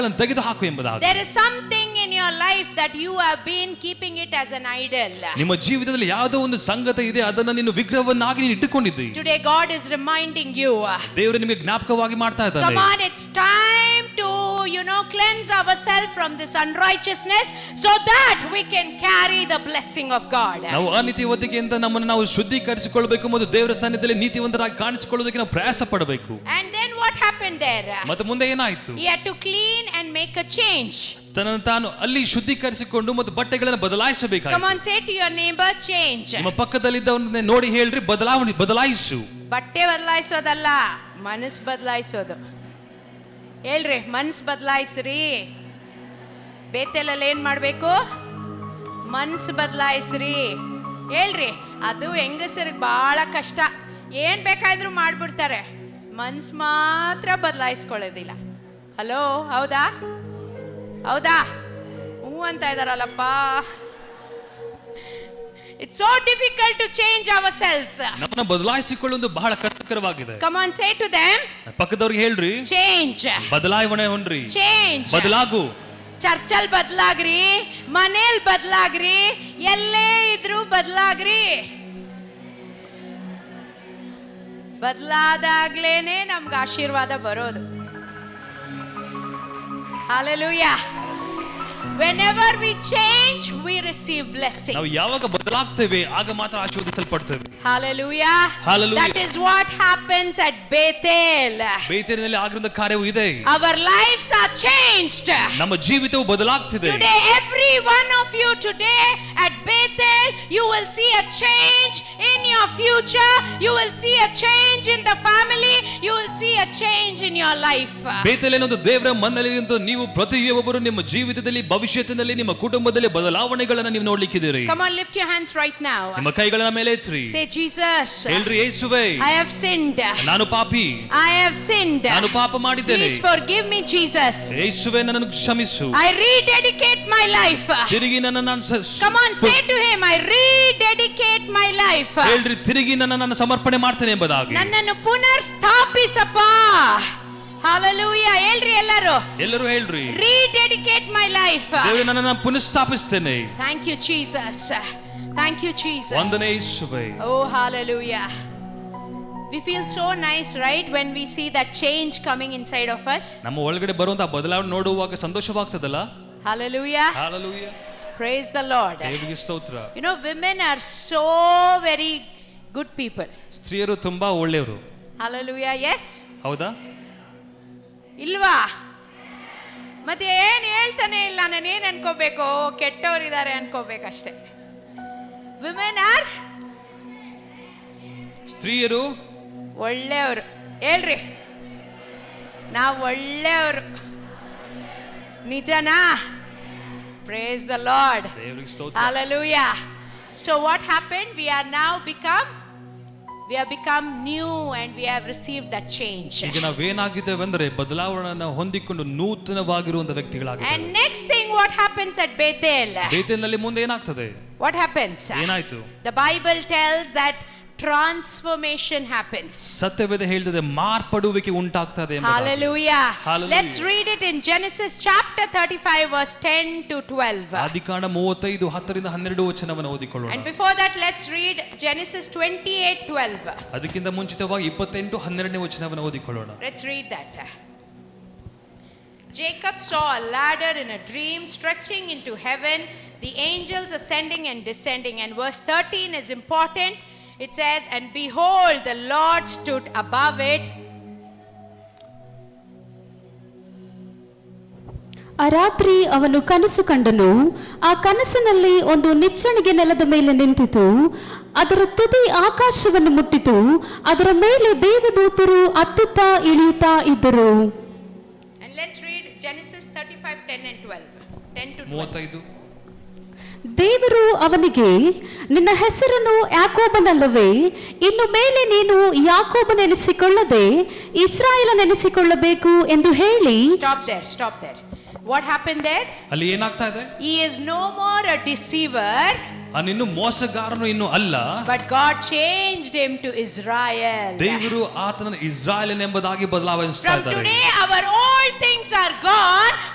ಅದನ್ನು ತೆಗೆದು ಹಾಕು ಎಂಬುದಾಗಿ There is something in your life that you have been keeping it as an idol. ನಿಮ್ಮ ಜೀವಿತದಲ್ಲಿ ಯಾವುದೋ ಒಂದು ಸಂಗತಿ ಇದೆ ಅದನ್ನ ನೀನು ವಿಗ್ರಹವನ್ನಾಗಿ ನೀನು ಇಟ್ಟುಕೊಂಡಿದ್ದಿ Today, God is reminding you. ದೇವರು ನಿಮಗೆ ಜ್ಞಾಪಕವಾಗಿ ಮಾಡ್ತಾ Come ಇದ್ದಾನೆ on, it's time to, you know, cleanse ourselves from this unrighteousness so that we can carry the blessing of God. ನಾವು ಅನೀತಿವತಿಕೆಯಿಂದ ನಮ್ಮನ್ನು ನಾವು ಶುದ್ಧೀಕರಿಸಿಕೊಳ್ಳಬೇಕು ಮತ್ತು ದೇವರ ಸನ್ನಿಧಿಯಲ್ಲಿ ನೀತಿವಂತರಾಗಿ ಕಾಣಿಸಿಕೊಳ್ಳೋದಕ್ಕೆ ನಾವು ಪ್ರಯಾಸ ಪಡಬೇಕು And then what happened there? ಮತ್ತೆ ಮುಂದೆ ಏನಾಯ್ತು He had to clean and make a change. ತನ್ನನ್ನು ತಾನು ಅಲ್ಲಿ ಶುದ್ಧೀಕರಿಸಿಕೊಂಡು ಮತ್ತು ಬಟ್ಟೆಗಳನ್ನು Come ಬದಲಾಯಿಸಬೇಕಾಗಿ on, say to your neighbor, change. ನಿಮ್ಮ ಪಕ್ಕದಲ್ಲಿದ್ದವನ್ನ ನೋಡಿ ಹೇಳ್ರಿ ಬದಲಾವಣೆ ಬದಲಾಯಿಸು ಬಟ್ಟೆ ಬದಲಾಯಿಸೋದಲ್ಲ ಮನಸ್ಸು ಬದಲಾಯಿಸೋದು ಹೇಳ್ರಿ ಮನಸ್ಸು ಬದಲಾಯಿಸ್ರಿ ಬೇತೆಲಲ್ಲಿ ಏನ್ ಮಾಡಬೇಕು ಮನಸ್ಸು ಬದಲಾಯಿಸ್ರಿ ಹೇಳ್ರಿ ಅದು ಹೆಂಗಸರಿಗೆ ಭಾಳ ಕಷ್ಟ ಏನು ಬೇಕಾದ್ರೂ ಮಾಡ್ಬಿಡ್ತಾರೆ ಮನ್ಸು ಮಾತ್ರ ಬದಲಾಯಿಸ್ಕೊಳ್ಳೋದಿಲ್ಲ ಹಲೋ ಹೌದಾ ಹೌದಾ ಹ್ಞೂ ಅಂತ ಇದಾರಲ್ಲಪ್ಪ it's so difficult to change ourselves ನಮ್ಮನ್ನ ಬದಲಾಯಿಸಿಕೊಳ್ಳುವುದು ಬಹಳ ಕಷ್ಟಕರವಾಗಿದೆ Come on, say to them, ಪಕ್ಕದವ್ರಿಗೆ ಹೇಳ್ರಿ change, ಬದಲಾವಣೆ ಹೊಂದ್ರಿ change. ಬದಲಾಗು ಚರ್ಚಲ್ ಬದಲಾಗ್ರಿ ಮನೇಲ್ ಬದಲಾಗ್ರಿ ಎಲ್ಲೇ ಇದ್ರೂ ಬದಲಾಗ್ರಿ ಬದಲಾದಾಗ್ಲೇನೆ ನಮ್ಗೆ ಆಶೀರ್ವಾದ ಬರೋದು Hallelujah. Whenever we change, we receive blessing. ನಾವು ಯಾವಾಗ ಬದಲಾಗ್ತೇವೆ ಆಗ ಮಾತ್ರ ಆಶೀರ್ವದಿಸಲ್ಪಡ್ತೇವೆ Hallelujah. Hallelujah. That is what happens at Bethel. ಬೇತೇರಿನಲ್ಲಿ ಆಗಿರುವ ಕಾರ್ಯವು ಇದೆ Our lives are changed. ನಮ್ಮ ಜೀವಿತವು ಬದಲಾಗ್ತಿದೆ Today, every one of you today at Bethel, you will see a change in your future. You will see a change in the family. You will see a change in your life. ಬೇತಲೇನೊಂದು ದೇವರ ಮನ್ನಲ್ಲಿ ನಿಂತು ನೀವು ಪ್ರತಿಯೊಬ್ಬರು ನಿಮ್ಮ ಜೀವಿತದಲ್ಲಿ ಭವಿಷ್ಯತ್ತಿನಲ್ಲಿ ನಿಮ್ಮ ಕುಟುಂಬದಲ್ಲಿ ಬದಲಾವಣೆಗಳನ್ನು ನೀವು ನೋಡ್ಲಿಕ್ಕಿದ್ದೀರಿ Come on, lift your hands right now. ನಿಮ್ಮ ಕೈಗಳ ಮೇಲೆ ಎತ್ರಿ Say, Jesus, ಹೇಳ್ರಿ ಏಸುವೆ I have sinned. ನಾನು ಪಾಪಿ I have sinned. ನಾನು ಪಾಪ ಮಾಡಿದ್ದೇನೆ Please forgive Ah. me, Jesus. ಏಸುವೆ ನನ್ನನ್ನು ಕ್ಷಮಿಸು I rededicate my life. ತಿರುಗಿ ನನ್ನ ನಾನು ಸ- ಸ- Come on, say to him, I rededicate my life. ಹೇಳ್ರಿ ತಿರುಗಿ ನನ್ನ ನಾನು ಸಮರ್ಪಣೆ ಮಾಡ್ತೇನೆ ಎಂಬುದಾಗಿ ನನ್ನನ್ನು ಪುನರ್ ಸ್ಥಾಪಿಸಪ್ಪ ಹಾಲಲೂಯ ಹೇಳ್ರಿ ಎಲ್ಲರೂ ಎಲ್ಲರೂ ಹೇಳ್ರಿ ರೀಡೆಡಿಕೇಟ್ ಮೈ ಲೈಫ್ ದೇವರು ನನ್ನ ಪುನಃಸ್ಥಾಪಿಸ್ತೇನೆ thank you Jesus thank you Jesus ವಂದನೆ ಯೇಸುವೆ ಓ hallelujah we feel so nice right when we see that change coming inside of us ನಮ್ಮ ಒಳಗಡೆ ಬರುವಂತಹ ಬದಲಾವಣೆ ನೋಡುವಾಗ ಸಂತೋಷವಾಗ್ತದಲ್ಲ hallelujah hallelujah praise the lord ದೇವರಿಗೆ ಸ್ತೋತ್ರ you know women are so very good people ಸ್ತ್ರೀಯರು ತುಂಬಾ ಒಳ್ಳೆಯವರು ಹಾಲಲೂಯ ಎಸ್ ಹೌದಾ ಇಲ್ವಾ ಮತ್ತೆ ಏನು ಹೇಳ್ತಾನೆ ಇಲ್ಲ ನಾನು ಏನು ಅನ್ಕೋಬೇಕು ಕೆಟ್ಟವರಿದ್ದಾರೆ ಅನ್ಕೋಬೇಕಷ್ಟೆ ವಿಮೆನ್ ಆರ್ ಸ್ತ್ರೀಯರು ಒಳ್ಳೆಯವರು ಹೇಳ್ರಿ ನಾವು ಒಳ್ಳೆಯವರು ನಿಜನಾ ಪ್ರೇಸ್ ದ ಲಾರ್ಡ್ ದೇವರಿಗೆ ಸ್ತೋತ್ರ hallelujah so what happen we are ನಾವ್ become we are become new and we have receive that change ಈಗ ನಾವೇನಾಗಿದ್ದೇವೆ ಅಂದ್ರೆ ಬದಲಾವಣೆಯನ್ನ ಹೊಂದಿಕೊಂಡು ನೂತನವಾಗಿರುವಂತ ವ್ಯಕ್ತಿಗಳಾಗಿದ್ದೇವೆ and next thing what happens at Bethel ಬೇತೇನಲ್ಲಿ ಮುಂದೆ ಏನಾಗ್ತದೆ ವಾಟ್ ಹ್ಯಾಪನ್ಸ್ ಏನಾಯ್ತು The Bible tells that transformation happens. ಸತ್ಯವೇದ ಹೇಳ್ತದೆ ಮಾರ್ಪಡುವಿಕೆ ಉಂಟಾಗ್ತದೆ ಎಂಬುದಾಗಿ. Hallelujah. Hallelujah. Let's read it in Genesis chapter 35, verse 10 to 12. ಆದಿಕಾಂಡ ಮೂವತ್ತೈದು ಹತ್ತರಿಂದ ಹನ್ನೆರಡು ವಚನವನ್ನು ಓದಿಕೊಳ್ಳೋಣ And before that, let's read Genesis 28 12. ಅದಕ್ಕಿಂತ ಮುಂಚಿತವಾಗಿ ಇಪ್ಪತ್ತೆಂಟು ಹನ್ನೆರಡನೇ ವಚನವನ್ನು ಓದಿಕೊಳ್ಳೋಣ Let's read that. Jacob saw a ladder in a dream stretching into heaven, the angels ascending and descending. And verse 13 is important. It says, And behold, the Lord stood above it ಆ ರಾತ್ರಿ ಅವನು ಕನಸು ಕಂಡನು ಆ ಕನಸಿನಲ್ಲಿ ಒಂದು ನಿಚ್ಚಣಿಗೆ ನೆಲದ ಮೇಲೆ ನಿಂತಿತು ಅದರ ತುದಿ ಆಕಾಶವನ್ನು ಮುಟ್ಟಿತು ಅದರ ಮೇಲೆ ದೇವದೂತರು ಅತ್ತುತ್ತಾ ಇಳಿಯುತ್ತಾ ಇದ್ದರು And let's read Genesis 35 10 and 12. 10 to 12. ಮೂವತ್ತೈದು ದೇವರು ಅವನಿಗೆ ನಿನ್ನ ಹೆಸರನ್ನು ಯಾಕೋಬನಲ್ಲವೇ ಇನ್ನು ಮೇಲೆ ನೀನು ಯಾಕೋಬನೆನಿಸಿಕೊಳ್ಳದೆ ಇಸ್ರಾಯೇಲನೆನಿಸಿಕೊಳ್ಳಬೇಕು ಎಂದು ಹೇಳಿ Stop there, stop there. What happened there? ಅಲ್ಲಿ ಏನಾಗ್ತಾ ಇದೆ He is no more a deceiver, ಅವನಿನ್ನು ಮೋಸಗಾರನು ಇನ್ನು ಅಲ್ಲ but God changed him to Israel. ದೇವರು ಆತನ ಇಸ್ರಾಯೇಲ್ ಎಂಬುದಾಗಿ ಬದಲಾವಣೆ From today, our old things are gone.